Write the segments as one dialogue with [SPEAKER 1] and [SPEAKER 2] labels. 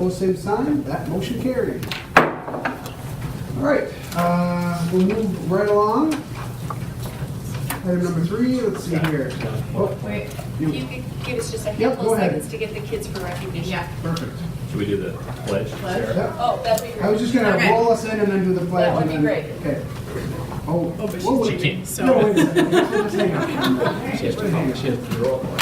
[SPEAKER 1] Opposed, same sign. That motion carried. All right, uh, we'll move right along. Item number three, let's see here. Oh,
[SPEAKER 2] Wait,
[SPEAKER 1] You-
[SPEAKER 3] If you could give us just a
[SPEAKER 1] Yep,
[SPEAKER 3] handful
[SPEAKER 1] go
[SPEAKER 3] of
[SPEAKER 1] ahead.
[SPEAKER 3] seconds to get the kids for recognition.
[SPEAKER 2] yeah,
[SPEAKER 1] Perfect.
[SPEAKER 4] Should we do the pledge?
[SPEAKER 2] Pledge?
[SPEAKER 4] Sarah?
[SPEAKER 1] Yep.
[SPEAKER 3] Oh, that'd be great.
[SPEAKER 1] I was just gonna
[SPEAKER 2] Okay.
[SPEAKER 1] roll us in and then do the pledge.
[SPEAKER 3] That would
[SPEAKER 1] and
[SPEAKER 3] be
[SPEAKER 1] then-
[SPEAKER 3] great.
[SPEAKER 1] Okay. Oh.
[SPEAKER 2] Oh, but
[SPEAKER 1] whoa,
[SPEAKER 2] she's
[SPEAKER 1] wait.
[SPEAKER 4] cheating, so-
[SPEAKER 1] No, wait a second. Let's hang on.
[SPEAKER 4] She has to call, she has to draw one.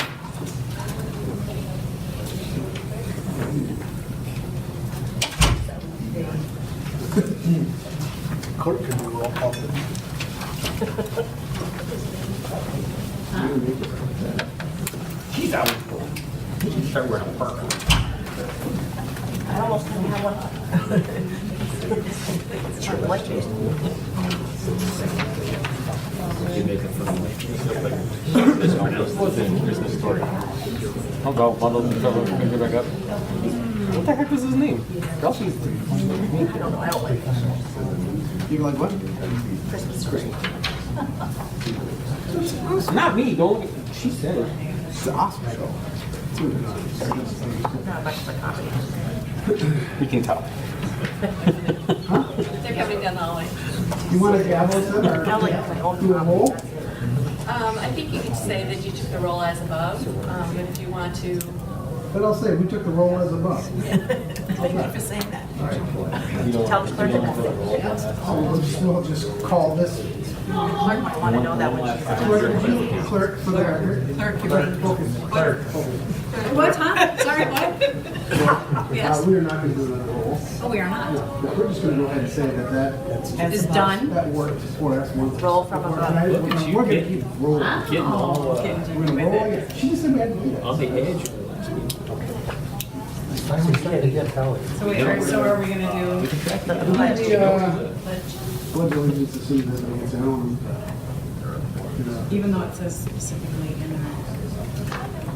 [SPEAKER 5] Clerk can do roll call.
[SPEAKER 4] She's out. She should start wearing a parka. You make it for the lady. It's pronounced the same Christmas story.
[SPEAKER 6] I'll go bundle the cover and get back up. What the heck was his name? Kelsey's.
[SPEAKER 1] You're like, what?
[SPEAKER 6] Not me, don't, she said it.
[SPEAKER 1] It's the Oscar show. It's what it is.
[SPEAKER 6] We can tell.
[SPEAKER 3] They're coming down the hallway.
[SPEAKER 1] You wanna gavel us in or? Do a roll?
[SPEAKER 3] Um, I think you could say that you took the role as above, um, and if you want to,
[SPEAKER 1] But I'll say, we took the roll as a buck.
[SPEAKER 6] You don't
[SPEAKER 7] Tell the clerk
[SPEAKER 6] you don't
[SPEAKER 7] that.
[SPEAKER 6] have to roll on
[SPEAKER 1] So we'll
[SPEAKER 6] that.
[SPEAKER 1] just, we'll just call this
[SPEAKER 7] Clerk might want to know that when she's
[SPEAKER 1] clerk, clerk for the record.
[SPEAKER 2] clerk, you mean.
[SPEAKER 1] Clerk.
[SPEAKER 2] What, huh? Sorry, what?
[SPEAKER 1] Uh, we are not gonna do another roll.
[SPEAKER 2] Oh, we are not.
[SPEAKER 1] No, We're just gonna go ahead and say that that,
[SPEAKER 2] It's done.
[SPEAKER 1] that worked for us once.
[SPEAKER 7] Roll from above.
[SPEAKER 1] We're gonna we're gonna keep rolling.
[SPEAKER 4] Getting all, uh,
[SPEAKER 1] We're gonna roll again. She just said we had to do that.
[SPEAKER 4] on the edge.
[SPEAKER 5] I'm trying to get Kelly.
[SPEAKER 2] So wait, are- so are we gonna do?
[SPEAKER 1] The, uh, Blood allegiance to see this man's own. uh,
[SPEAKER 2] Even though it says specifically in there.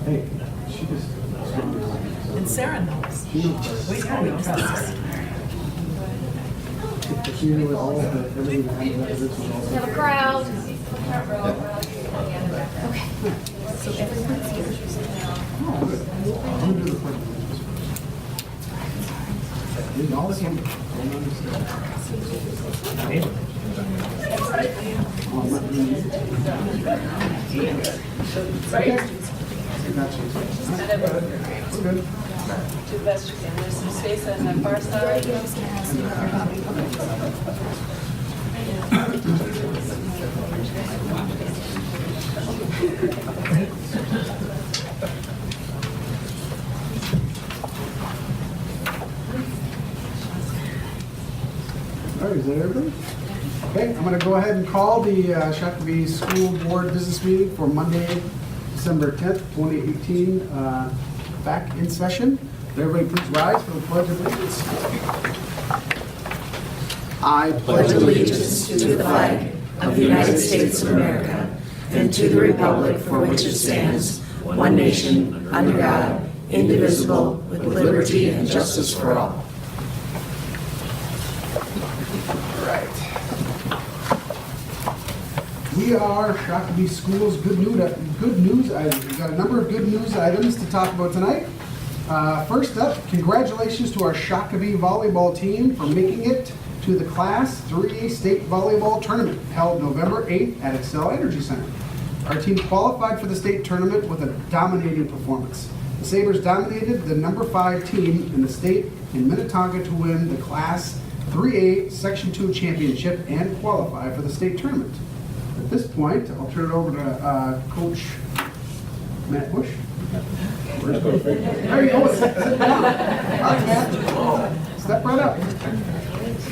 [SPEAKER 1] Hey, she just. She
[SPEAKER 2] And Sarah knows.
[SPEAKER 1] knows.
[SPEAKER 2] We kind of trust.
[SPEAKER 1] She knew all of the, everything that happened. This was all.
[SPEAKER 8] We have a crowd. Front row, we're all here on the other back row.
[SPEAKER 1] Oh, good. I'm gonna do the pledge of allegiance. Did all this one? Don't understand. Oh, I'm not doing it. Okay. Gotcha. All right. We're good.
[SPEAKER 3] do the best you can. There's some space on the far side.
[SPEAKER 1] All right, is that everybody? Okay, I'm going to go ahead and call the uh, Shakopee School Board Business Meeting for Monday, December 10th, 2018, uh, back in session. Everybody please rise for the Pledge of Allegiance. I pledge
[SPEAKER 9] allegiance to the flag of the United States of America and to the republic for which it stands, one nation, under God, indivisible, with liberty and justice for all.
[SPEAKER 1] We are Shakopee Schools Good News, good news items. We've got a number of good news items to talk about tonight. Uh, First up, congratulations to our Shakopee volleyball team for making it to the Class 3A State Volleyball Tournament held November 8th at Excel Energy Center. Our team qualified for the state tournament with a dominating performance. The Sabres dominated the number five team in the state in Minnetonka to win the Class 3A Section 2 championship and qualify for the state tournament. At this point, I'll turn it over to uh, Coach Matt Bush. There you go. Sit sit down. All right, Matt. Step right up.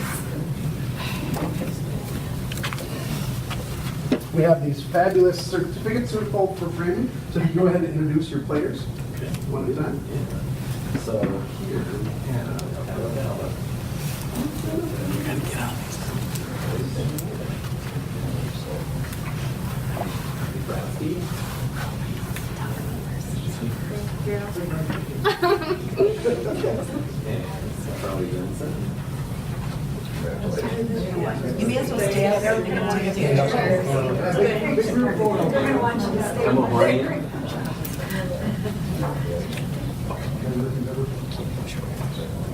[SPEAKER 1] We have these fabulous certificates to fold for framing, so if you go ahead and introduce your players one at a time.
[SPEAKER 4] So here, and I'll go down. Brad Pitt. And Charlie Jensen.
[SPEAKER 7] You may as well stay out there. They're gonna take a picture.
[SPEAKER 4] I'm a Hawaiian.